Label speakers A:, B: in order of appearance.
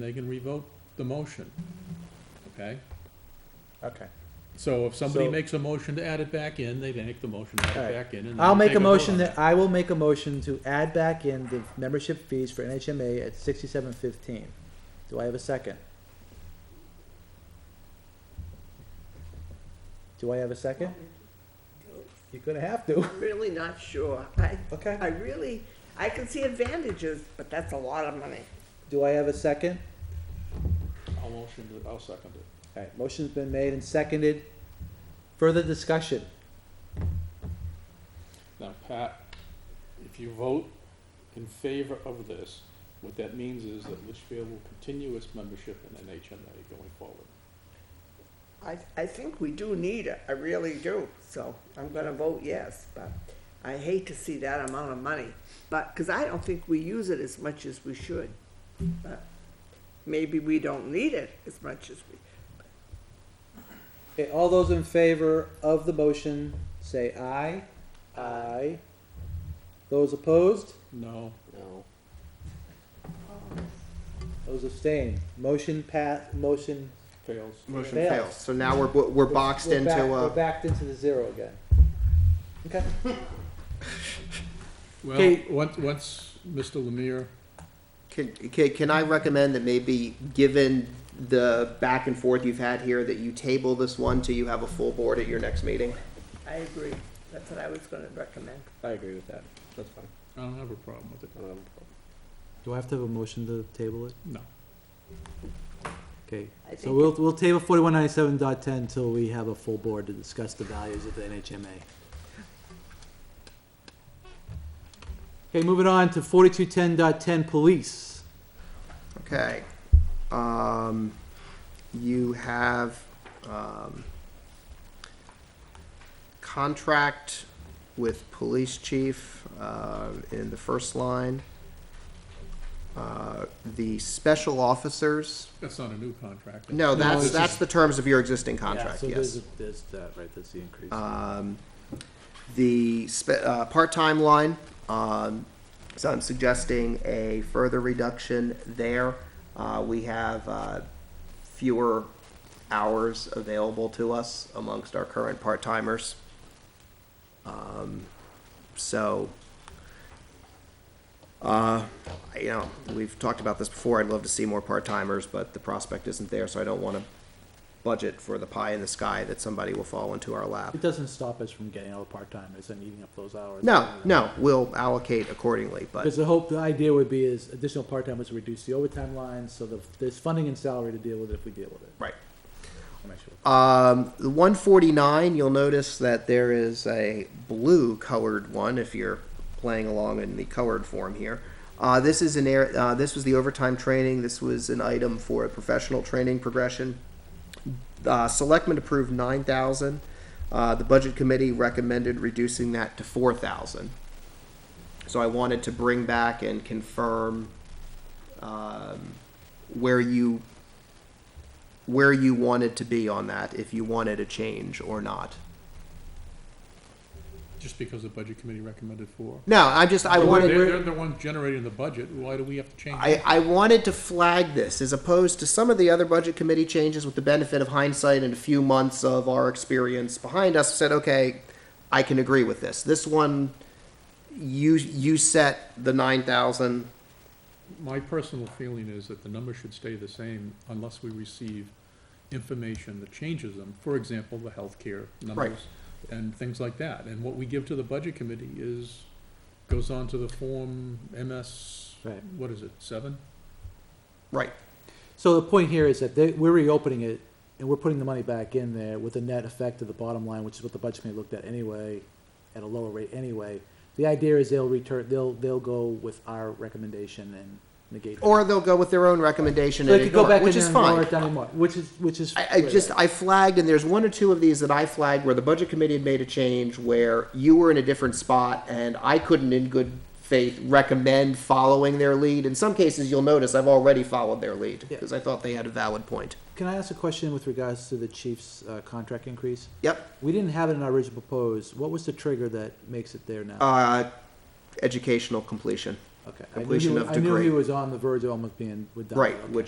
A: they can revoke the motion, okay?
B: Okay.
A: Mm-hmm. So if somebody
B: So-
A: makes a motion to add it back in, they make the motion to add it
B: Alright.
A: back in. and then
B: I'll
A: we
B: make
A: take
B: a
A: vote
B: motion
A: on it.
B: that, I will make a motion to add back in the membership fees for NHMA at sixty-seven fifteen. Do I have a second? Do I have a second? You're gonna have to.
C: I'm really not sure. I,
B: Okay.
C: I really, I can see advantages, but that's a lot of money.
B: Do I have a second?
A: I'll motion it, I'll second it.
B: Alright, motion's been made and seconded. Further discussion?
A: Now, Pat, if you vote in favor of this, what that means is that Litchfield will continue its membership in NHMA going forward.
C: I, I think we do need it, I really do. So I'm gonna vote yes, but I hate to see that amount of money. But, because I don't think we use it as much as we should. But Maybe we don't need it as much as we,
B: Okay, all those in favor of the motion, say aye. Aye. Those opposed?
A: No,
D: No.
B: Those abstained. Motion pass, motion
A: fails.
D: Motion
B: Fails.
D: fails. So now we're, bo- we're boxed
B: We're
D: into
B: back- We're
D: a.
B: backed into the zero again. Okay,
A: Well,
B: Okay.
A: once, once Mr. Lemire,
D: Can, can, can I recommend that maybe, given the back and forth you've had here, that you table this one till you have a full board at your next meeting?
C: I agree. That's what I was gonna recommend.
E: I agree with that. That's fine.
A: I don't have a problem with it,
E: I don't have
B: Um,
E: a
B: do I have to have a motion to table it?
A: no.
B: Okay, so
C: I think
B: we'll, we'll table forty-one ninety-seven dot ten till we have a full board to discuss the values of the NHMA. Okay, moving on to forty-two ten dot ten, police.
D: Okay. Um, you have, um, contract with police chief, uh, in the first line. Uh, the special officers,
A: That's not a new contract.
D: no, that's,
B: it's
D: that's
B: just-
D: the terms of your existing
B: Yeah,
D: contract,
B: so
D: yes.
B: there's a- There's that, right, that's the increase.
D: Um, the spe- uh, part-time line, um, so I'm suggesting a further reduction there. Uh, we have uh, fewer hours available to us amongst our current part-timers. Um, so, uh, you know, we've talked about this before. I'd love to see more part-timers, but the prospect isn't there, so I don't want to budget for the pie in the sky that somebody will fall into our lap.
B: It doesn't stop us from getting all the part-timers and eating up those hours.
D: No, no, we'll allocate accordingly,
B: Because
D: but,
B: the hope, the idea would be is additional part-timers reduce the overtime line, so the, there's funding and salary to deal with it if we deal with it.
D: right.
B: I'll make sure.
D: Um, the one forty-nine, you'll notice that there is a blue colored one, if you're playing along in the colored form here. Uh, this is an air, uh, this was the overtime training, this was an item for a professional training progression. Uh, selectmen approved nine thousand, uh, the budget committee recommended reducing that to four thousand. So I wanted to bring back and confirm, um, where you where you wanted to be on that, if you wanted a change or not.
A: Just because the budget committee recommended four.
D: No, I just I
A: Well,
D: wanted
A: They're, they're the ones generating the budget, why do we have to change it?
D: I, I wanted to flag this as opposed to some of the other budget committee changes with the benefit of hindsight and a few months of our experience behind us said, okay, I can agree with this. This one you you set the nine thousand
A: My personal feeling is that the numbers should stay the same unless we receive information that changes them. For example, the healthcare numbers and things like that. And what we give to the budget committee is, goes on to the form MS,
B: Right.
A: what is it, seven?
D: right.
B: So the point here is that they, we're reopening it and we're putting the money back in there with the net effect of the bottom line, which is what the budget committee looked at anyway, at a lower rate anyway. The idea is they'll return, they'll, they'll go with our recommendation and negate.
D: Or they'll go with their own recommendation
B: They
D: and
B: could go
D: ignore it,
B: back in
D: Oh, which
B: there
D: is
B: and
D: fine.
B: lower it down even more, which is, which is.
D: I, I just, I flagged, and there's one or two of these that I flagged where the budget committee had made a change where you were in a different spot and I couldn't in good faith recommend following their lead. In some cases, you'll notice I've already followed their lead
B: Yeah.
D: because I thought they had a valid point.
B: Can I ask a question with regards to the chief's, uh, contract increase?
D: Yep.
B: We didn't have it in our original proposed. What was the trigger that makes it there now?
D: Uh, educational completion,
B: Okay. I knew he
D: completion
B: wa-
D: of
B: I knew he
D: degree.
B: was on the verge of almost being, with.
D: right, which